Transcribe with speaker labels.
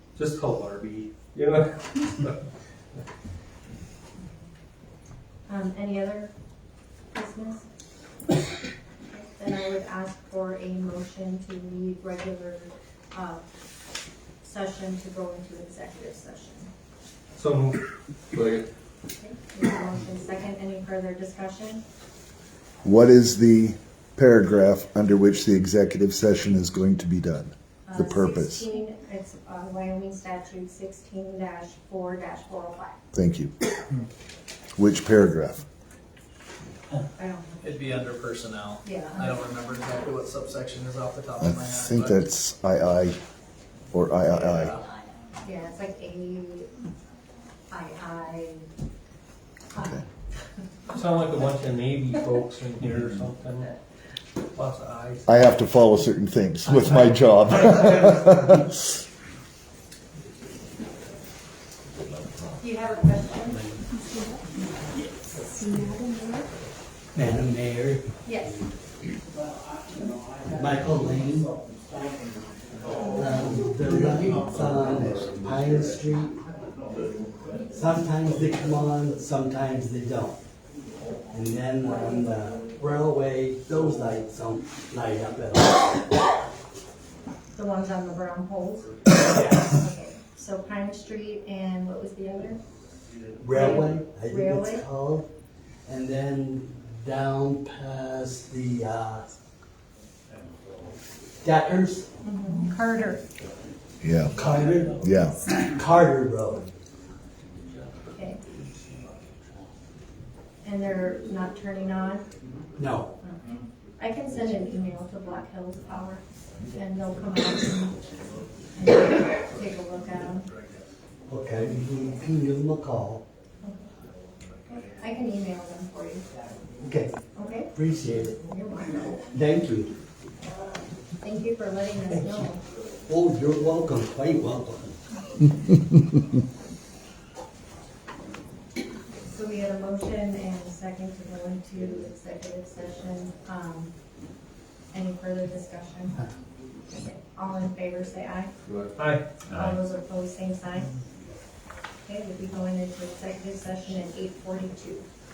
Speaker 1: just call Barbie, you know?
Speaker 2: Um, any other business? Then I would ask for a motion to leave regular, uh, session to go into executive session.
Speaker 1: So moved.
Speaker 2: Okay, we have a Motion second, any further discussion?
Speaker 3: What is the paragraph under which the executive session is going to be done?
Speaker 2: Uh,
Speaker 3: The purpose.
Speaker 2: 16 It's uh, Wyoming statute sixteen four four oh five.
Speaker 3: Thank you. Which paragraph?
Speaker 2: I don't,
Speaker 4: It'd be under personnel. I
Speaker 2: yeah,
Speaker 4: don't remember exactly what subsection is off the top
Speaker 3: I
Speaker 4: of my head.
Speaker 3: think
Speaker 4: but- uh,
Speaker 3: that's II or III.
Speaker 4: Yeah.
Speaker 2: yeah, it's like A, I, I, I.
Speaker 3: Okay.
Speaker 1: Sound like a bunch of Navy folks in here or something, lots of eyes.
Speaker 3: I have to follow certain things with my job.
Speaker 2: Do you have a question?
Speaker 5: Madam Mayor,
Speaker 2: Yes.
Speaker 5: Michael Lane. Um, The lights on Pine Street, sometimes they come on, sometimes they don't. And then on the railway, those lights don't light up at all.
Speaker 2: The ones on the brown poles? Okay, So Pine Street and what was the other?
Speaker 5: Railway, I think
Speaker 2: Railway?
Speaker 5: it's called. And then down past the, uh, Deckers,
Speaker 2: Carter.
Speaker 3: Yeah,
Speaker 5: Carter,
Speaker 3: yeah.
Speaker 5: Carter Road.
Speaker 2: Okay. And they're not turning on?
Speaker 5: No,
Speaker 2: I can send an email to Black Hills Power and they'll come out and and take a look at them.
Speaker 5: Okay, you can- you can give them a call.
Speaker 2: I can email them for you,
Speaker 5: Okay,
Speaker 2: okay?
Speaker 5: appreciate it.
Speaker 2: You're welcome.
Speaker 5: Thank you.
Speaker 2: Thank you for letting us know.
Speaker 5: Oh, you're welcome, quite welcome.
Speaker 2: So we had a motion and a second to go into executive session. Um, Any further discussion? All in favor, say aye.
Speaker 1: Aye.
Speaker 2: All those opposed, same sign. Okay, we'll be going into executive session at eight forty-two.